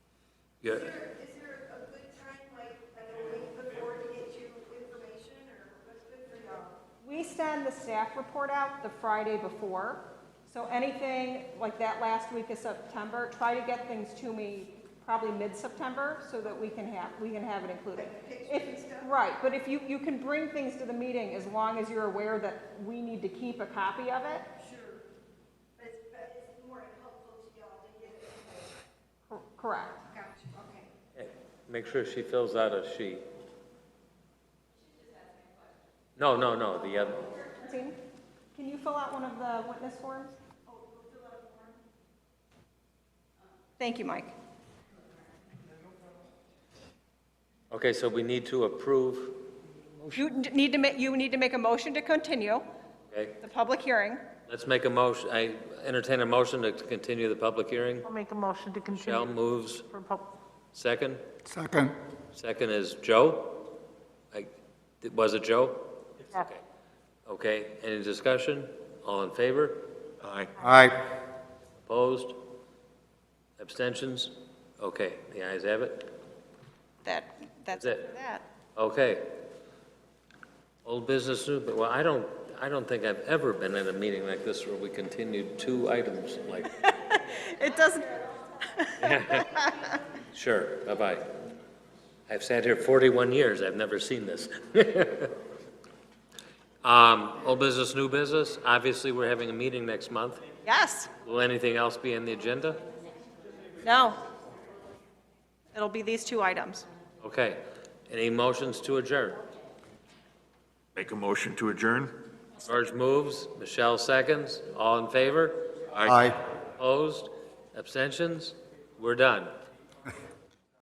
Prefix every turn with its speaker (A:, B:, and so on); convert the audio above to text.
A: Yeah,
B: Is there, is there a good time, like, like a week before to get you information, or what's good for y'all?
C: We send the staff report out the Friday before, so anything like that last week of September, try to get things to me probably mid-September so that we can have, we can have it included. If- Right, but if you, you can bring things to the meeting as long as you're aware that we need to keep a copy of it.
B: Sure. But it's, but it's more helpful to y'all to get it.
C: Cor- Correct.
B: Gotcha, okay.
D: Make sure she fills out a sheet. No, no, no, the other,
C: Christine, Can you fill out one of the witness forms? Thank you, Mike.
D: okay, so we need to approve,
C: You d- need to ma, you need to make a motion to continue
D: okay?
C: the public hearing.
D: Let's make a motion, I entertain a motion to continue the public hearing.
E: I'll make a motion to
D: Michelle
E: continue
D: moves,
E: for pub,
D: second.
F: Second.
D: Second is Joe? I- Was it Joe?
E: yeah.
D: Okay, any discussion? All in favor?
A: aye.
F: Aye.
D: Opposed? Abstentions? Okay, the ayes have it.
C: That, that's
D: That's it.
C: that.
D: Okay. Old business, new, but, well, I don't, I don't think I've ever been at a meeting like this where we continued two items like,
C: It doesn't,
D: sure, bye-bye. I've sat here 41 years, I've never seen this. Um, Old business, new business, obviously, we're having a meeting next month.
C: yes,
D: Will anything else be on the agenda?
C: no. It'll be these two items.
D: Okay. Any motions to adjourn?
A: Make a motion to adjourn?
D: George moves, Michelle seconds, all in favor?
F: Aye.
D: Opposed? Abstentions? We're done.